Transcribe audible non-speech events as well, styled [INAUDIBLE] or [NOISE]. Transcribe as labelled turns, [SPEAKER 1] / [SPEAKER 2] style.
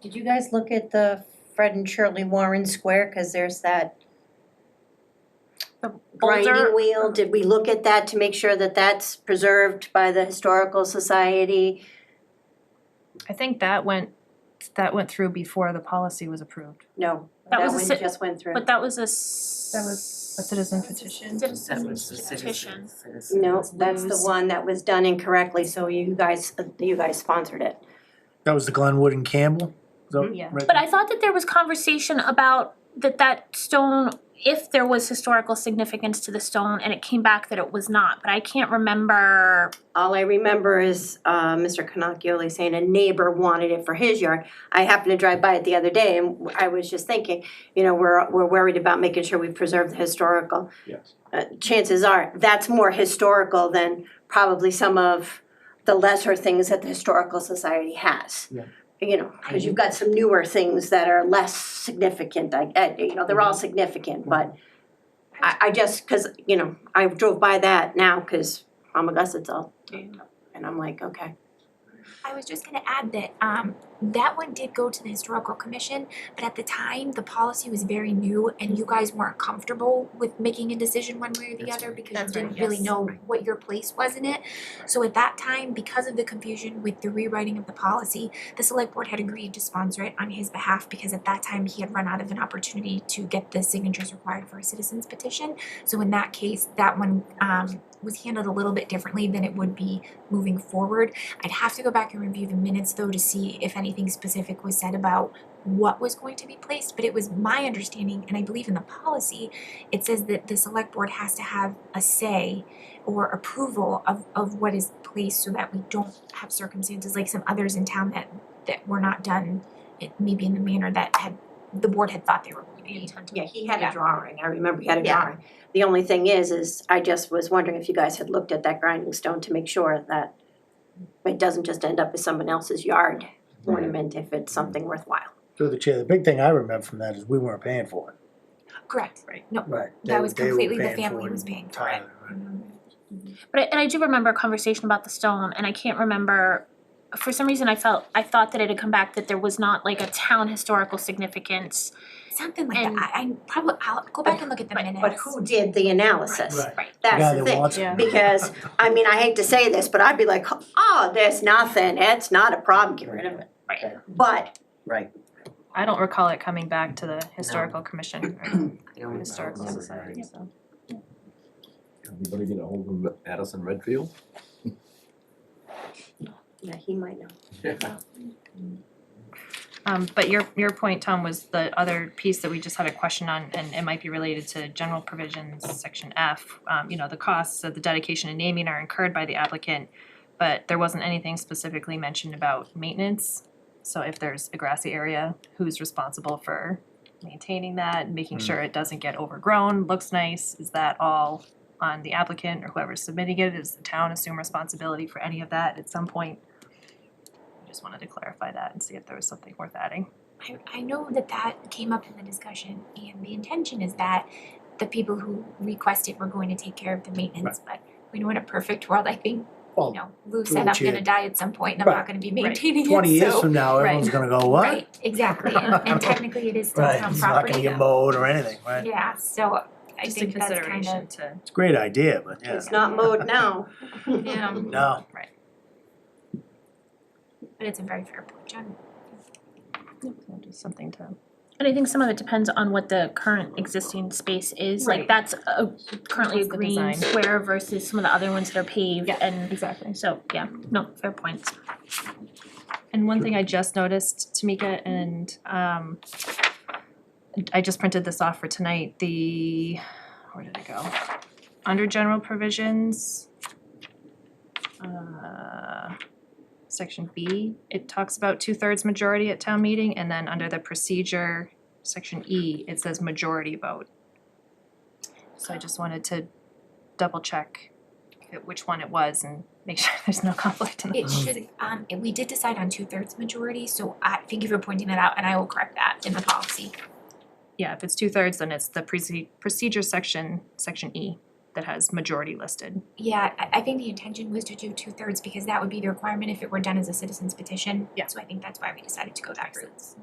[SPEAKER 1] Did you guys look at the Fred and Shirley Warren Square, cause there's that grinding
[SPEAKER 2] Boulder-
[SPEAKER 1] wheel, did we look at that to make sure that that's preserved by the historical society?
[SPEAKER 2] I think that went, that went through before the policy was approved.
[SPEAKER 1] No,
[SPEAKER 3] That
[SPEAKER 1] that
[SPEAKER 3] was a
[SPEAKER 1] one
[SPEAKER 3] ci-
[SPEAKER 1] just went through.
[SPEAKER 3] But that was a s-
[SPEAKER 2] That was a citizen petition.
[SPEAKER 4] That
[SPEAKER 3] Citizen
[SPEAKER 4] was the citizen.
[SPEAKER 3] petition.
[SPEAKER 4] citizen.
[SPEAKER 1] No, that's the
[SPEAKER 3] Lose.
[SPEAKER 1] one that was done incorrectly, so you guys, you guys sponsored it.
[SPEAKER 5] That was the Glenwood and Campbell? Is that
[SPEAKER 2] Yeah.
[SPEAKER 5] right?
[SPEAKER 3] But I thought that there was conversation about that that stone, if there was historical significance to the stone and it came back that it was not, but I can't remember.
[SPEAKER 1] All I remember is uh Mr. Canacchioli saying a neighbor wanted it for his yard. I happened to drive by it the other day and I was just thinking, you know, we're we're worried about making sure we preserve the historical.
[SPEAKER 6] Yes.
[SPEAKER 1] Uh chances are, that's more historical than probably some of the lesser things that the historical society has.
[SPEAKER 6] Yeah.
[SPEAKER 1] You know, cause you've got some newer things that are less significant, I I- you know, they're all
[SPEAKER 6] Mm-hmm.
[SPEAKER 1] significant, but I I just, cause you know, I drove by that now, cause I'm Augusta, it's all and I'm like, okay.
[SPEAKER 7] I was just gonna add that um that one did go to the historical commission, but at the time, the policy was very new and you guys weren't comfortable with making a decision one way or the
[SPEAKER 4] That's
[SPEAKER 7] other
[SPEAKER 4] right.
[SPEAKER 7] because you
[SPEAKER 3] That's
[SPEAKER 7] didn't
[SPEAKER 3] right,
[SPEAKER 7] really
[SPEAKER 3] yes.
[SPEAKER 7] know what your place was in it. So at that time, because of the confusion with the rewriting of the policy, the select board had agreed to sponsor it on his behalf because at that time, he had run out of an opportunity to get the signatures required for a citizen's petition. So in that case, that one um was handled a little bit differently than it would be moving forward. I'd have to go back and review the minutes though to see if anything specific was said about what was going to be placed, but it was my understanding, and I believe in the policy, it says that the select board has to have a say or approval of of what is placed so that we don't have circumstances like some others in town that that were not done it maybe in the manner that had the board had thought they were going to be.
[SPEAKER 1] Yeah, he had
[SPEAKER 7] Yeah.
[SPEAKER 1] a drawing, I remember he had a
[SPEAKER 7] Yeah.
[SPEAKER 1] drawing. The only thing is, is I just was wondering if you guys had looked at that grinding stone to make sure that it doesn't just end up as someone else's yard ornament if it's something worthwhile.
[SPEAKER 5] Through the chair, the big thing I remember from that is we weren't paying for it.
[SPEAKER 7] Correct, right, no,
[SPEAKER 5] Right.
[SPEAKER 7] that was completely, the family was paying for it.
[SPEAKER 3] But I, and I do remember a conversation about the stone and I can't remember, for some reason I felt, I thought that it had come back that there was not like a town historical significance.
[SPEAKER 7] Something like
[SPEAKER 3] And-
[SPEAKER 7] that, I I probably, I'll go back and look at the
[SPEAKER 3] but-
[SPEAKER 7] minutes.
[SPEAKER 1] But who did the analysis?
[SPEAKER 5] Right.
[SPEAKER 3] Right.
[SPEAKER 5] The guy
[SPEAKER 1] That's the
[SPEAKER 5] that
[SPEAKER 1] thing.
[SPEAKER 5] wants
[SPEAKER 2] Yeah.
[SPEAKER 5] it.
[SPEAKER 1] Because, I mean, I hate to say this, but I'd be like, oh, there's nothing, it's not a problem, get rid of it.
[SPEAKER 3] Right.
[SPEAKER 1] But
[SPEAKER 4] Right.
[SPEAKER 2] I don't recall it coming back to the historical commission
[SPEAKER 4] I don't
[SPEAKER 2] or historical
[SPEAKER 4] remember.
[SPEAKER 2] society, so.
[SPEAKER 8] Everybody get a hold of Addison Redfield?
[SPEAKER 1] yeah, he might know.
[SPEAKER 2] Um, but your, your point, Tom, was the other piece that we just had a question on, and it might be related to general provisions, section F. Um, you know, the costs of the dedication and naming are incurred by the applicant, but there wasn't anything specifically mentioned about maintenance. So if there's a grassy area, who's responsible for maintaining that, making sure it doesn't get overgrown, looks nice? Is that all on the applicant or whoever's submitting it? Does the town assume responsibility for any of that at some point? I Just wanted to clarify that and see if there was something worth adding.
[SPEAKER 7] I, I know that that came up in the discussion, and the intention is that the people who requested were going to take care of the maintenance, but we know in a perfect world, I think, you
[SPEAKER 5] [LAUGHS] Well,
[SPEAKER 7] know, Lou
[SPEAKER 5] Lou
[SPEAKER 7] said, I'm gonna
[SPEAKER 5] Chia-
[SPEAKER 7] die at some point and I'm not
[SPEAKER 5] Right.
[SPEAKER 7] gonna be
[SPEAKER 2] Right.
[SPEAKER 7] maintaining it, so.
[SPEAKER 5] twenty years from now,
[SPEAKER 2] Right.
[SPEAKER 5] everyone's gonna go, what?
[SPEAKER 7] Right, exactly, and,
[SPEAKER 5] [LAUGHS]
[SPEAKER 7] and technically it is still
[SPEAKER 5] Right,
[SPEAKER 7] town
[SPEAKER 5] it's not
[SPEAKER 7] property
[SPEAKER 5] gonna
[SPEAKER 7] though.
[SPEAKER 5] get mowed or anything, right?
[SPEAKER 7] Yeah, so I
[SPEAKER 2] just in
[SPEAKER 7] think that's kind
[SPEAKER 2] consideration
[SPEAKER 7] of,
[SPEAKER 2] to.
[SPEAKER 5] It's a great idea, but yeah,
[SPEAKER 1] It's not mowed now.
[SPEAKER 2] Yeah.
[SPEAKER 7] um,
[SPEAKER 5] no.
[SPEAKER 7] but it's a very fair point, John.
[SPEAKER 2] Just something to.
[SPEAKER 3] And I think some of it depends on what the current existing space is, like
[SPEAKER 2] Right.
[SPEAKER 3] that's a currently a
[SPEAKER 2] What's the
[SPEAKER 3] green
[SPEAKER 2] design?
[SPEAKER 3] square versus some of the other ones that are paved
[SPEAKER 2] Yeah.
[SPEAKER 3] and
[SPEAKER 2] Exactly.
[SPEAKER 3] so, yeah, no, fair points.
[SPEAKER 2] And one thing I just noticed, Tamika, and um I just printed this off for tonight, the, where did it go? Under general provisions. Uh section B, it talks about two-thirds majority at town meeting, and then under the procedure, section E, it says majority vote. So I just wanted to double check which one it was and make [LAUGHS] sure there's no conflict
[SPEAKER 5] Uh-huh.
[SPEAKER 2] in the
[SPEAKER 7] It should, um, and we did decide on two thirds majority, so I, thank you for pointing that out, and I will correct that in the policy.
[SPEAKER 2] Yeah, if it's two thirds, then it's the proce- procedure section, section E, that has majority listed.
[SPEAKER 7] Yeah, I, I think the intention was to do two thirds because that would be the requirement if it were done as a citizen's petition.
[SPEAKER 2] Yeah.
[SPEAKER 7] So I think that's why we decided to go that route.